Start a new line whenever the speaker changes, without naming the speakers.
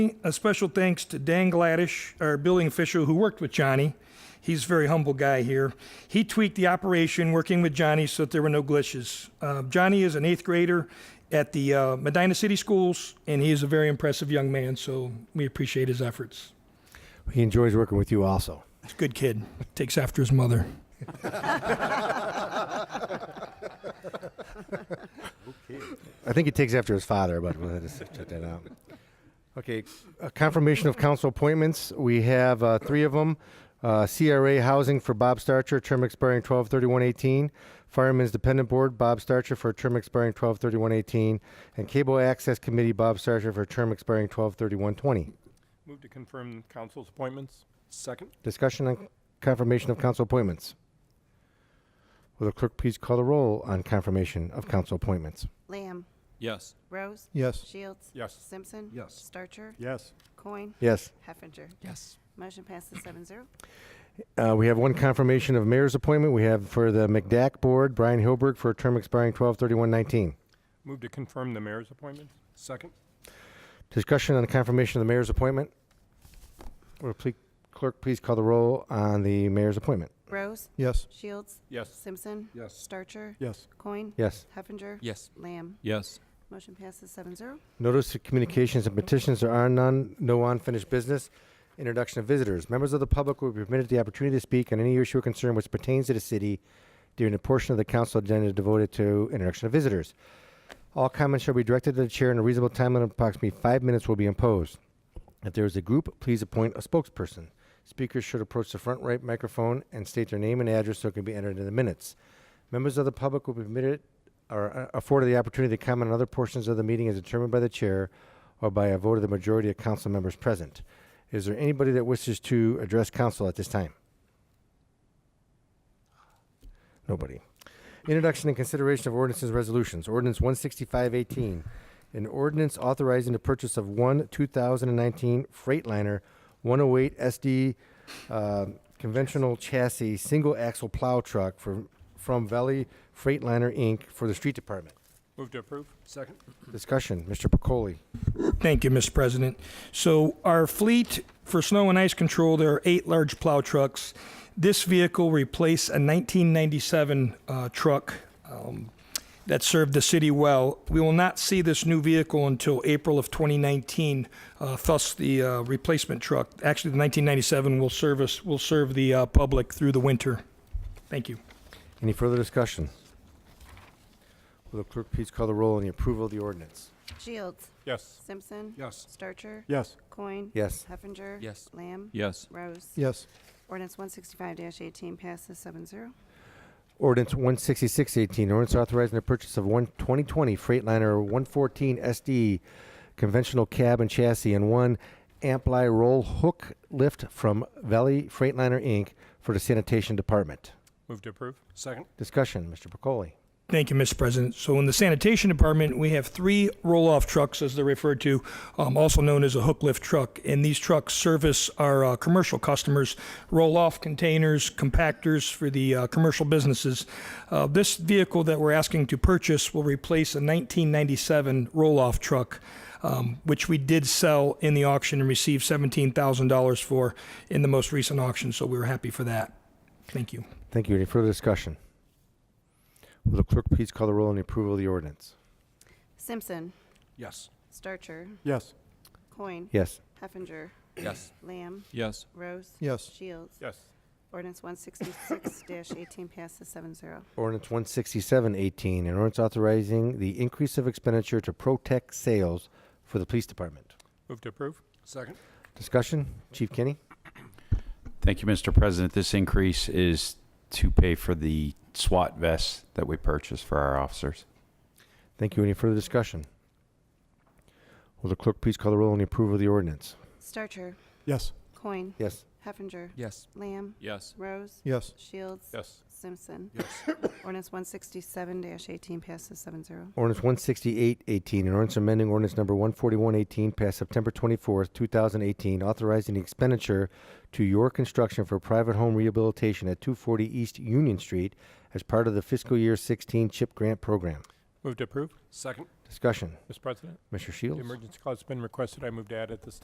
A special thanks to Dan Gladish, our building official who worked with Johnny. He's a very humble guy here. He tweaked the operation working with Johnny so that there were no glitches. Uh, Johnny is an eighth grader at the uh, Medina City Schools, and he is a very impressive young man, so we appreciate his efforts.
He enjoys working with you also.
He's a good kid, takes after his mother.
I think he takes after his father, but we'll just check that out. Okay, uh, confirmation of council appointments. We have uh, three of them. Uh, CRA Housing for Bob Starcher, term expiring 12/31/18. Firemen's Dependent Board, Bob Starcher for a term expiring 12/31/18. And Cable Access Committee, Bob Starcher for a term expiring 12/31/20.
Move to confirm council's appointments. Second.
Discussion on confirmation of council appointments. Will the clerk please call the roll on confirmation of council appointments?
Lamb.
Yes.
Rose.
Yes.
Shields.
Yes.
Simpson.
Yes.
Starcher.
Yes.
Coin.
Yes.
Heffinger.
Yes.
Motion passes seven zero.
Uh, we have one confirmation of mayor's appointment. We have for the McDack Board, Brian Hilberg for a term expiring 12/31/19.
Move to confirm the mayor's appointments. Second.
Discussion on the confirmation of the mayor's appointment. Will ple- Clerk, please call the roll on the mayor's appointment.
Rose.
Yes.
Shields.
Yes.
Simpson.
Yes.
Starcher.
Yes.
Coin.
Yes.
Heffinger.
Yes.
Lamb.
Yes.
Motion passes seven zero.
Notice of communications and petitions. There are none. No unfinished business. Introduction of visitors. Members of the public will be permitted the opportunity to speak on any issue or concern which pertains to the city during a portion of the council agenda devoted to introduction of visitors. All comments shall be directed to the chair in a reasonable time limit of approximately five minutes will be imposed. If there is a group, please appoint a spokesperson. Speakers should approach the front right microphone and state their name and address so it can be entered in the minutes. Members of the public will be permitted or uh, afforded the opportunity to comment on other portions of the meeting as determined by the chair or by a vote of the majority of council members present. Is there anybody that wishes to address council at this time? Nobody. Introduction and consideration of ordinances and resolutions. Ordinance 16518, an ordinance authorizing the purchase of one 2019 Freightliner 108 SD uh, conventional chassis single axle plow truck from from Valley Freightliner Inc. for the street department.
Move to approve. Second.
Discussion, Mr. Pacoli.
Thank you, Mr. President. So our fleet for snow and ice control, there are eight large plow trucks. This vehicle replaced a 1997 uh, truck um, that served the city well. We will not see this new vehicle until April of 2019. Uh, thus, the uh, replacement truck, actually the 1997, will service will serve the uh, public through the winter. Thank you.
Any further discussion? Will the clerk please call the roll on the approval of the ordinance?
Shields.
Yes.
Simpson.
Yes.
Starcher.
Yes.
Coin.
Yes.
Heffinger.
Yes.
Lamb.
Yes.
Rose.
Yes.
Ordinance one sixty-five eighteen passes seven zero.
Ordinance 16618, ordinance authorizing the purchase of one 2020 Freightliner 114 SD conventional cab and chassis and one Ampli roll hook lift from Valley Freightliner Inc. for the sanitation department.
Move to approve. Second.
Discussion, Mr. Pacoli.
Thank you, Mr. President. So in the sanitation department, we have three roll-off trucks, as they're referred to, um, also known as a hook lift truck. And these trucks service our uh, commercial customers, roll-off containers, compactors for the uh, commercial businesses. Uh, this vehicle that we're asking to purchase will replace a 1997 roll-off truck, um, which we did sell in the auction and received $17,000 for in the most recent auction. So we were happy for that. Thank you.
Thank you. Any further discussion? Will the clerk please call the roll on the approval of the ordinance?
Simpson.
Yes.
Starcher.
Yes.
Coin.
Yes.
Heffinger.
Yes.
Lamb.
Yes.
Rose.
Yes.
Shields.
Yes.
Ordinance one sixty-six eighteen passes seven zero.
Ordinance 16718, an ordinance authorizing the increase of expenditure to protect sales for the police department.
Move to approve. Second.
Discussion, Chief Kenny?
Thank you, Mr. President. This increase is to pay for the SWAT vests that we purchased for our officers.
Thank you. Any further discussion? Will the clerk please call the roll on the approval of the ordinance?
Starcher.
Yes.
Coin.
Yes.
Heffinger.
Yes.
Lamb.
Yes.
Rose.
Yes.
Shields.
Yes.
Simpson.
Yes.
Ordinance one sixty-seven eighteen passes seven zero.
Ordinance 16818, an ordinance amending ordinance number 14118 passed September 24th, 2018, authorizing the expenditure to your construction for private home rehabilitation at 240 East Union Street as part of the fiscal year 16 CHIP grant program.
Move to approve. Second.
Discussion.
Mr. President,
Mr.
the
Shields?
emergency clause has been requested. I move to add at this time.